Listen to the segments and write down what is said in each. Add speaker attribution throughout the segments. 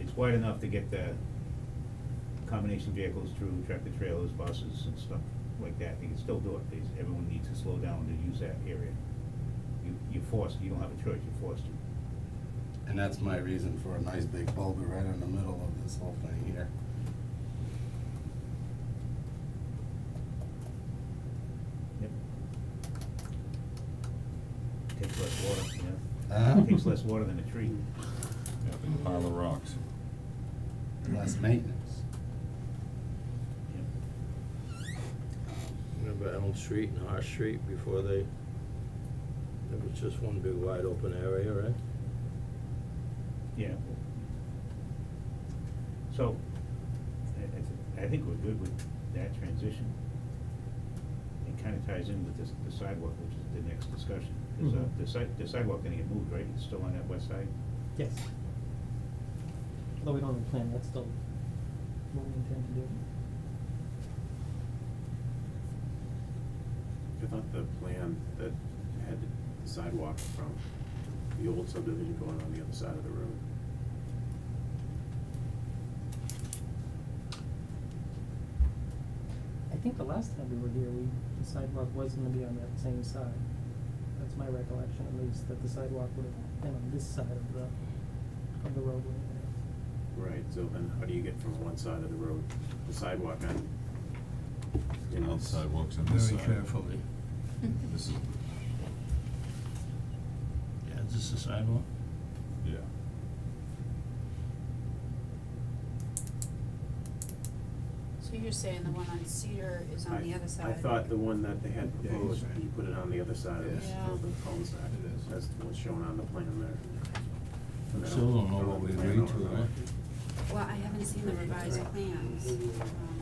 Speaker 1: it's wide enough to get the combination vehicles through, tractor trailers, buses and stuff like that, they can still do it, There's- everyone needs to slow down to use that area. You, you're forced, you don't have a choice, you're forced to.
Speaker 2: And that's my reason for a nice big boulder right in the middle of this whole thing here.
Speaker 1: Yep. Takes less water, yeah,
Speaker 2: Uh,
Speaker 1: takes less water than a tree.
Speaker 3: Yeah, big pile of rocks. Mm-hmm.
Speaker 2: less maintenance.
Speaker 1: Yep.
Speaker 4: Remember Elm Street and Hart Street before they, it was just one big wide open area, right?
Speaker 1: Yeah. So, I- I, thi- I think we're good with that transition. It kinda ties in with this, the sidewalk, which is the next discussion, cause uh,
Speaker 5: Mhm.
Speaker 1: the side, the sidewalk gonna get moved, right, it's still on that west side?
Speaker 5: Yes. Although we don't have a plan, that's still what we intend to do.
Speaker 6: I thought the plan that had the sidewalk from the old subdivision going on the other side of the road.
Speaker 5: I think the last time we were here, we, the sidewalk was gonna be on that same side. That's my recollection at least, that the sidewalk would have been on this side of the, of the roadway.
Speaker 6: Right, so then how do you get from one side of the road, the sidewalk on? in
Speaker 3: Now the
Speaker 6: this-
Speaker 3: sidewalks on this side. This is,
Speaker 4: Yeah, is this the sidewalk?
Speaker 3: yeah.
Speaker 7: So you're saying the one on Cedar is on
Speaker 6: I-
Speaker 7: the other side?
Speaker 6: I thought the one that they had
Speaker 2: Yeah, you
Speaker 6: proposed,
Speaker 2: said.
Speaker 6: you put it on the other side of
Speaker 2: Yeah.
Speaker 6: this,
Speaker 7: Yeah.
Speaker 6: of the cul-de-sac.
Speaker 2: It is.
Speaker 6: That's what's shown on the plan there. And I
Speaker 4: Still don't know
Speaker 6: know
Speaker 4: what
Speaker 6: if
Speaker 4: we
Speaker 6: the plan
Speaker 4: agreed to,
Speaker 6: overlapped.
Speaker 4: huh?
Speaker 7: Well, I haven't seen the revised plans. Um,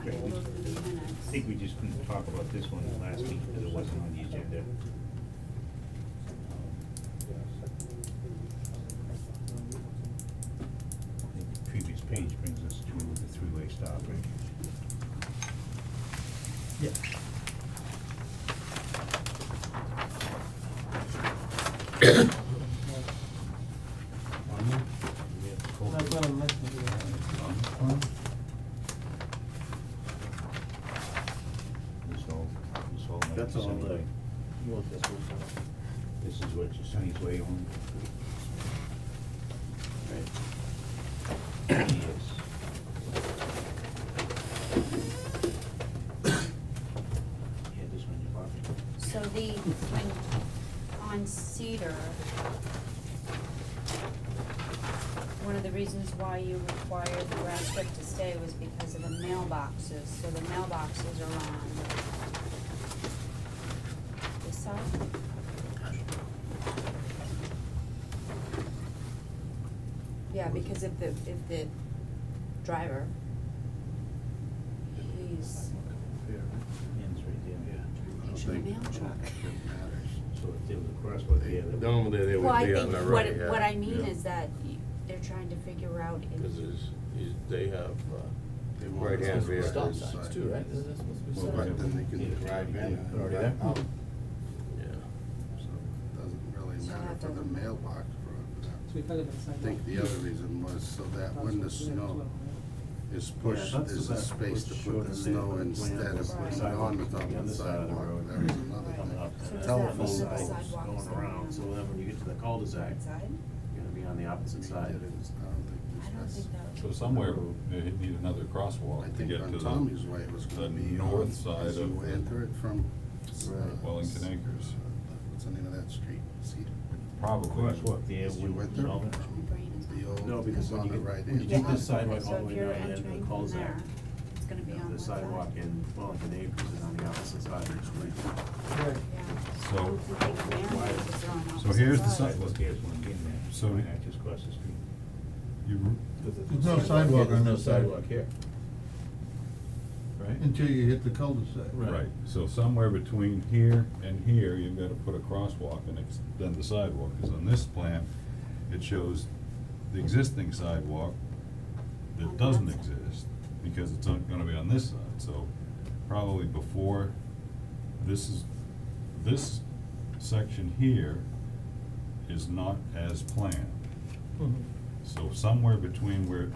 Speaker 7: I can go through the minutes.
Speaker 1: I think we just couldn't talk about this one last week, cause it wasn't on the agenda. I think the previous page brings us to the three-way stop, right?
Speaker 5: Yeah. That's what I'm mentioning here.
Speaker 1: This whole, this whole. might
Speaker 6: That's
Speaker 1: be
Speaker 6: all the,
Speaker 1: anyway.
Speaker 6: you want this one?
Speaker 1: This is what your Sunny's Way on.
Speaker 6: Right.
Speaker 1: Yes. Yeah, this one you're blocking.
Speaker 7: So the, when, on Cedar, one of the reasons why you required the grass strip to stay was because of the mailboxes, so the mailboxes are on this side? Yeah, because if the, if the driver leaves,
Speaker 1: Ends right there.
Speaker 2: I don't
Speaker 7: Should
Speaker 2: think-
Speaker 7: mail
Speaker 2: I don't
Speaker 7: truck.
Speaker 2: think it matters.
Speaker 1: So if there was a crosswalk there, that would.
Speaker 4: Normally they
Speaker 7: Well,
Speaker 4: would
Speaker 7: I
Speaker 4: be on
Speaker 7: think
Speaker 4: the
Speaker 7: what,
Speaker 4: right, yeah.
Speaker 7: what I mean
Speaker 4: yeah.
Speaker 7: is that y- they're trying to figure out if.
Speaker 4: Cause it's, is, they have, uh,
Speaker 2: They want
Speaker 4: right hand
Speaker 2: us to
Speaker 4: vehicles.
Speaker 2: stop sign.
Speaker 8: Isn't that supposed to be
Speaker 2: Well,
Speaker 8: separate?
Speaker 2: but then they
Speaker 1: Yeah.
Speaker 2: can drive in and
Speaker 8: Already
Speaker 2: drive
Speaker 8: there?
Speaker 2: out,
Speaker 4: yeah.
Speaker 2: so it doesn't really
Speaker 7: So
Speaker 2: matter
Speaker 7: that
Speaker 2: for the
Speaker 7: doesn't-
Speaker 2: mailbox for that.
Speaker 5: So we thought about
Speaker 2: I
Speaker 5: sidewalk.
Speaker 2: think the other reason was so that when the snow is pushed,
Speaker 6: Yeah, that's
Speaker 2: there's
Speaker 6: the
Speaker 2: a
Speaker 6: back
Speaker 2: space to
Speaker 6: was
Speaker 2: put
Speaker 6: showed
Speaker 2: the
Speaker 6: in
Speaker 2: snow
Speaker 6: there, but the plan
Speaker 2: instead of
Speaker 6: was
Speaker 2: putting it
Speaker 6: sidewalk
Speaker 2: on the
Speaker 6: on the
Speaker 2: top of
Speaker 6: other
Speaker 2: the
Speaker 6: side of the
Speaker 2: sidewalk,
Speaker 6: road.
Speaker 2: that was another
Speaker 7: Right.
Speaker 2: thing.
Speaker 7: So does that
Speaker 2: Telephone
Speaker 7: mean that the
Speaker 2: poles
Speaker 7: sidewalk is
Speaker 6: Going
Speaker 7: gonna be on
Speaker 6: around, so
Speaker 7: the
Speaker 6: whenever you get to the
Speaker 7: right
Speaker 6: cul-de-sac,
Speaker 7: side?
Speaker 6: you're gonna be on the opposite side.
Speaker 7: I don't think that
Speaker 3: So
Speaker 7: would.
Speaker 3: somewhere, they need another crosswalk to get to
Speaker 2: I think on
Speaker 3: the.
Speaker 2: Tommy's way it was gonna
Speaker 3: the
Speaker 2: be
Speaker 3: north
Speaker 2: on,
Speaker 3: side
Speaker 2: as you
Speaker 3: of the-
Speaker 2: enter it from, uh,
Speaker 3: Right, Wellington Acres.
Speaker 2: What's the name of that street? Cedar?
Speaker 3: Probably.
Speaker 1: Crosswalk there
Speaker 2: As you
Speaker 1: would
Speaker 2: enter
Speaker 1: solve it.
Speaker 2: from
Speaker 7: Brain is
Speaker 2: the
Speaker 7: not-
Speaker 2: old,
Speaker 6: No, because
Speaker 2: it's
Speaker 6: when
Speaker 2: on
Speaker 6: you
Speaker 2: the
Speaker 6: get-
Speaker 2: right
Speaker 6: when
Speaker 2: end.
Speaker 6: you get
Speaker 7: Yeah.
Speaker 6: this sidewalk
Speaker 7: So
Speaker 6: all
Speaker 7: if
Speaker 6: the way
Speaker 7: you're
Speaker 6: down and then
Speaker 7: entering
Speaker 6: the
Speaker 7: from
Speaker 6: cul-de-sac.
Speaker 7: there, It's gonna be
Speaker 6: you know,
Speaker 7: on one
Speaker 6: The
Speaker 7: side.
Speaker 6: sidewalk in Wellington Acres is on the opposite side of the street.
Speaker 5: Right.
Speaker 7: Yeah.
Speaker 3: So-
Speaker 7: I would think mailboxes are on
Speaker 3: So
Speaker 7: opposite
Speaker 3: here's the
Speaker 7: sides.
Speaker 3: sidewalk.
Speaker 1: Sidewalk there is one in there.
Speaker 3: So-
Speaker 1: And that just across the street.
Speaker 3: You,
Speaker 8: There's no sidewalk on that side.
Speaker 4: here.
Speaker 3: right?
Speaker 8: Until you hit the cul-de-sac.
Speaker 3: Right, so somewhere between here and here, you've gotta put a crosswalk and ex- then the sidewalk, cause on this plan, it shows the existing sidewalk that doesn't exist, because it's not gonna be on this side, so probably before, this is, this section here is not as planned.
Speaker 5: Mhm.
Speaker 3: So somewhere between where